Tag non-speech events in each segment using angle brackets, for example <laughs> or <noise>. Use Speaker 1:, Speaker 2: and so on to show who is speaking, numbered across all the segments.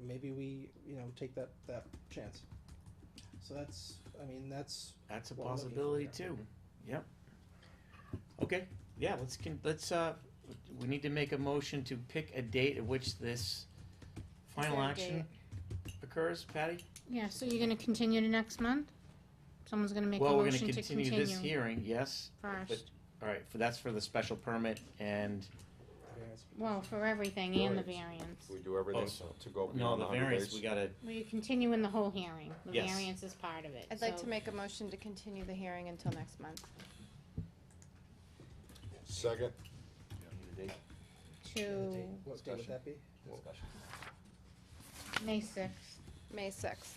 Speaker 1: maybe we, you know, take that, that chance. So that's, I mean, that's,
Speaker 2: That's a
Speaker 1: Well, I'm looking for
Speaker 2: possibility
Speaker 1: it.
Speaker 2: too. Yep. Okay, yeah, let's, con- let's, uh, we need to make a motion to pick a date at which this final
Speaker 3: there a
Speaker 2: action occurs, Patty?
Speaker 3: Yeah, so you're gonna continue to next month? Someone's gonna make a
Speaker 2: Well, we're gonna
Speaker 3: motion to
Speaker 2: continue this
Speaker 3: continue
Speaker 2: hearing, yes.
Speaker 3: first.
Speaker 2: All right, for, that's for the special permit and,
Speaker 3: Well, for everything and the
Speaker 4: Variance.
Speaker 3: variance.
Speaker 4: We do everything
Speaker 2: Oh, so-
Speaker 4: to go
Speaker 2: no,
Speaker 4: beyond
Speaker 2: the
Speaker 4: the hundred
Speaker 2: variance,
Speaker 4: days.
Speaker 2: we gotta,
Speaker 3: Well, you're continuing the whole hearing. The
Speaker 2: Yes.
Speaker 3: variance is part of it.
Speaker 5: I'd like
Speaker 3: so-
Speaker 5: to make a motion to continue the hearing until next month.
Speaker 3: To
Speaker 4: Second,
Speaker 1: what day would that be?
Speaker 2: <laughs>
Speaker 3: May sixth.
Speaker 5: May sixth.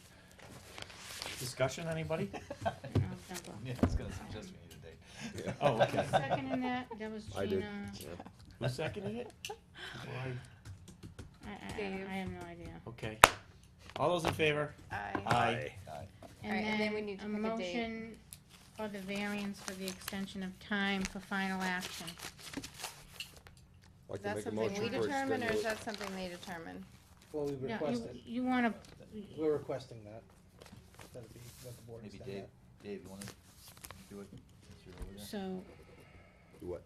Speaker 2: discussion, <laughs> anybody?
Speaker 6: Yeah, I was gonna suggest we need a date.
Speaker 4: yeah.
Speaker 2: <laughs>
Speaker 4: <laughs>
Speaker 2: Oh, okay.
Speaker 3: Second in that, that was
Speaker 4: I did,
Speaker 3: Gina.
Speaker 4: yeah.
Speaker 5: uh,
Speaker 2: Who seconded it? <laughs> Why-
Speaker 3: I, I,
Speaker 5: Dave.
Speaker 3: I have no idea.
Speaker 2: Okay. All those in favor?
Speaker 5: Aye.
Speaker 2: Aye.
Speaker 5: All right,
Speaker 3: And
Speaker 5: and then we
Speaker 3: then
Speaker 5: need to
Speaker 3: a
Speaker 5: pick a date.
Speaker 3: motion for the variance for the extension of time for final action.
Speaker 4: I'd like
Speaker 5: Is
Speaker 4: to
Speaker 5: that
Speaker 4: make a
Speaker 5: something
Speaker 4: motion
Speaker 5: we
Speaker 4: for
Speaker 5: determine, or is
Speaker 4: extended.
Speaker 5: that something they determine?
Speaker 1: Well, we
Speaker 3: No, you,
Speaker 1: requested,
Speaker 3: you wanna,
Speaker 1: we're requesting that, that it be, that the board
Speaker 6: Maybe
Speaker 1: extend
Speaker 6: Dave,
Speaker 1: that.
Speaker 6: Dave, you wanna do it since you're over there?
Speaker 3: so,
Speaker 4: What?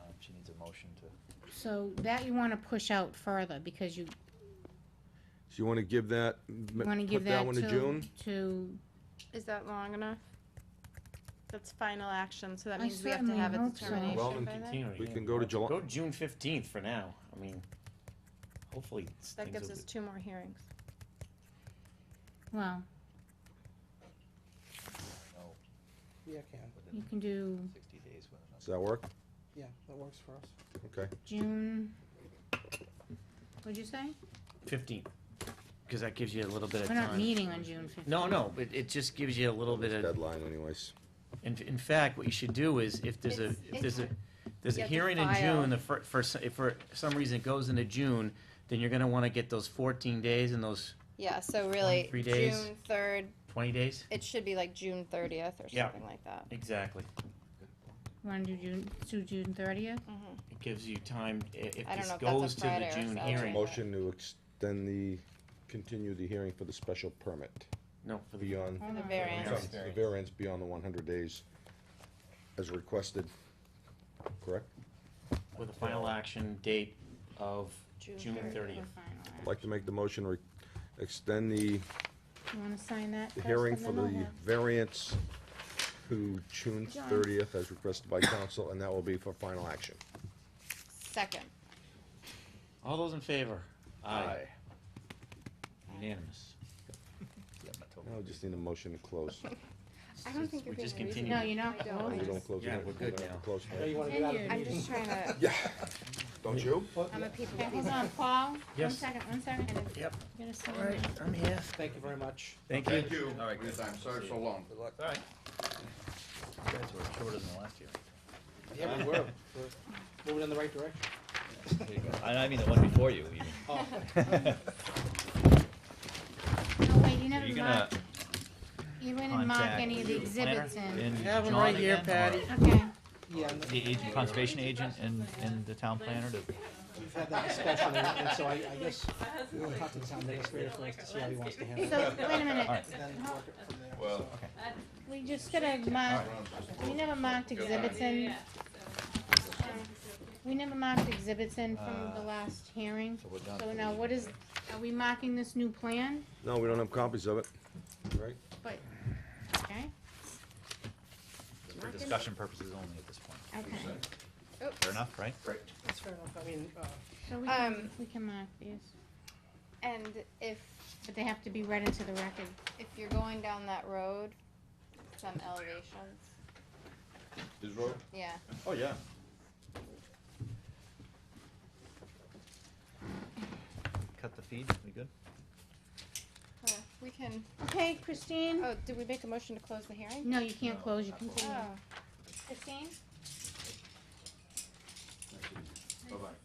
Speaker 6: Um, she needs a motion to,
Speaker 3: so that you wanna push out further, because you
Speaker 4: So you wanna give that,
Speaker 3: You wanna give
Speaker 4: put that
Speaker 3: that
Speaker 4: one to
Speaker 3: to,
Speaker 4: June?
Speaker 3: to,
Speaker 5: Is that long enough? That's final action, so that
Speaker 3: I
Speaker 5: means we have to
Speaker 3: certainly
Speaker 5: have a
Speaker 3: hope so.
Speaker 5: determination
Speaker 4: Well,
Speaker 5: by
Speaker 4: then
Speaker 5: then?
Speaker 2: Continuing.
Speaker 4: We can go to July-
Speaker 2: Go June fifteenth for now. I mean, hopefully s-
Speaker 5: That
Speaker 2: things
Speaker 5: gives
Speaker 2: will
Speaker 5: us
Speaker 2: be.
Speaker 5: two more hearings.
Speaker 3: well,
Speaker 6: know,
Speaker 1: Yeah, I can,
Speaker 3: you
Speaker 6: within
Speaker 3: can do
Speaker 6: sixty days with
Speaker 4: Does
Speaker 6: another.
Speaker 4: that work?
Speaker 1: yeah, that works for us.
Speaker 4: Okay.
Speaker 3: June, what'd you say?
Speaker 2: Fifteenth, because that gives you a little bit of
Speaker 3: We're not
Speaker 2: time.
Speaker 3: meeting on June fifteenth.
Speaker 2: No, no, it, it just gives you a little bit of,
Speaker 4: Deadline anyways.
Speaker 2: in, in fact, what you should do is, if there's a,
Speaker 5: It's-
Speaker 2: if there's a,
Speaker 5: it's-
Speaker 2: there's a
Speaker 5: you have to
Speaker 2: hearing in
Speaker 5: file.
Speaker 2: June, the fir, for, s- if for some reason it goes into June, then you're gonna wanna get those fourteen days and those
Speaker 5: Yeah, so really,
Speaker 2: 23 days.
Speaker 5: June third,
Speaker 2: twenty days?
Speaker 5: it should be like June thirtieth or
Speaker 2: Yeah.
Speaker 5: something like that.
Speaker 2: Exactly.
Speaker 3: Wanna do June, do June thirtieth?
Speaker 5: Mhm.
Speaker 2: It gives you time, i- if
Speaker 5: I don't
Speaker 2: this
Speaker 5: know if that's a
Speaker 2: goes to the
Speaker 5: Friday or
Speaker 2: June
Speaker 5: Saturday.
Speaker 2: hearing,
Speaker 4: Motion to extend the, continue the hearing for the special permit
Speaker 2: no, for the,
Speaker 4: beyond,
Speaker 5: The variance,
Speaker 2: Variance.
Speaker 4: the variance beyond the one hundred days as requested, correct?
Speaker 2: with a final action date of
Speaker 5: June
Speaker 2: June thirtieth.
Speaker 4: I'd like to make the motion, re- extend the
Speaker 3: You wanna sign that
Speaker 4: The
Speaker 3: first,
Speaker 4: hearing
Speaker 3: and
Speaker 4: for
Speaker 3: then I'll
Speaker 4: the
Speaker 3: have-
Speaker 4: variance to June
Speaker 3: John.
Speaker 4: thirtieth as requested by council, and that will be for final action.
Speaker 5: second.
Speaker 2: All those in favor? Unanimous.
Speaker 6: Yeah, I'm not totally-
Speaker 4: Now we just need a motion to close.
Speaker 5: I don't think
Speaker 2: We
Speaker 5: you're
Speaker 2: just
Speaker 5: being
Speaker 2: continue.
Speaker 5: reasonable.
Speaker 3: No, you're not.
Speaker 5: I
Speaker 4: <laughs>
Speaker 5: don't.
Speaker 4: Oh,
Speaker 3: Oh,
Speaker 4: We
Speaker 3: nice.
Speaker 4: don't close.
Speaker 2: Yeah,
Speaker 4: it.
Speaker 2: we're good
Speaker 4: don't have to
Speaker 2: now.
Speaker 4: close
Speaker 1: No,
Speaker 4: it.
Speaker 1: you wanna get out of the
Speaker 3: Continued.
Speaker 5: I'm
Speaker 1: meeting.
Speaker 5: just trying to,
Speaker 4: <laughs> Yeah. Don't you?
Speaker 1: Well,
Speaker 5: I'm a people
Speaker 3: Okay, hold
Speaker 5: pleaser.
Speaker 3: on, Paul, one
Speaker 2: Yes.
Speaker 3: second, one second.
Speaker 2: Yep.
Speaker 3: You gotta sign
Speaker 2: All right,
Speaker 3: that.
Speaker 2: I'm here.
Speaker 1: Thank you very much.
Speaker 2: Thank you.
Speaker 7: Thank you.
Speaker 6: All right, guys.
Speaker 7: I'm sorry so long.
Speaker 6: Good luck. All right. You guys were shorter than the last year.
Speaker 1: Yeah, we were, we're moving in the right direction.
Speaker 6: There you go. And I mean the one before you even. <laughs>
Speaker 1: Oh,
Speaker 3: No, wait, <laughs> you
Speaker 6: Are you
Speaker 3: never
Speaker 6: gonna
Speaker 3: marked, you didn't mark
Speaker 6: contact
Speaker 3: any of the
Speaker 6: the planner
Speaker 3: exhibits in.
Speaker 6: and
Speaker 2: Have 'em
Speaker 6: John
Speaker 2: right here,
Speaker 6: again, or
Speaker 2: Patty.
Speaker 3: Okay,
Speaker 1: yeah, and
Speaker 6: The agent, conservation agent and, and the town planner to,
Speaker 1: we've had that discussion, and and so I, I guess we'll talk to the town administrator first to see how he wants to handle it.
Speaker 3: so, wait a
Speaker 6: all right.
Speaker 3: minute,
Speaker 1: and Then work it from there.
Speaker 7: Well,
Speaker 1: so.
Speaker 3: we just gotta mark, we never marked exhibits in. We never marked exhibits in from the
Speaker 6: Uh,
Speaker 3: last hearing,
Speaker 6: so we're done.
Speaker 3: so now what is, are we marking this new plan?
Speaker 4: No, we don't have copies of it, right?
Speaker 3: But, okay,
Speaker 6: For discussion purposes only at this point.
Speaker 3: okay,
Speaker 6: Fair enough, right?
Speaker 1: That's fair enough, I mean, uh,
Speaker 3: so we can,
Speaker 5: Um,
Speaker 3: we can mark these,
Speaker 5: And if,
Speaker 3: but they have to be read into the record.
Speaker 5: if you're going down that road, some elevations,
Speaker 7: His road?
Speaker 5: yeah.
Speaker 7: Oh, yeah.
Speaker 6: Cut the feed, we good?
Speaker 5: Uh, We can,
Speaker 3: Okay, Christine?
Speaker 5: oh, did we make a motion to close the hearing?
Speaker 3: Hmm. No, you can't
Speaker 6: No,
Speaker 3: close, you
Speaker 6: not
Speaker 3: continue.
Speaker 5: Oh,
Speaker 3: Christine?
Speaker 7: Bye-bye.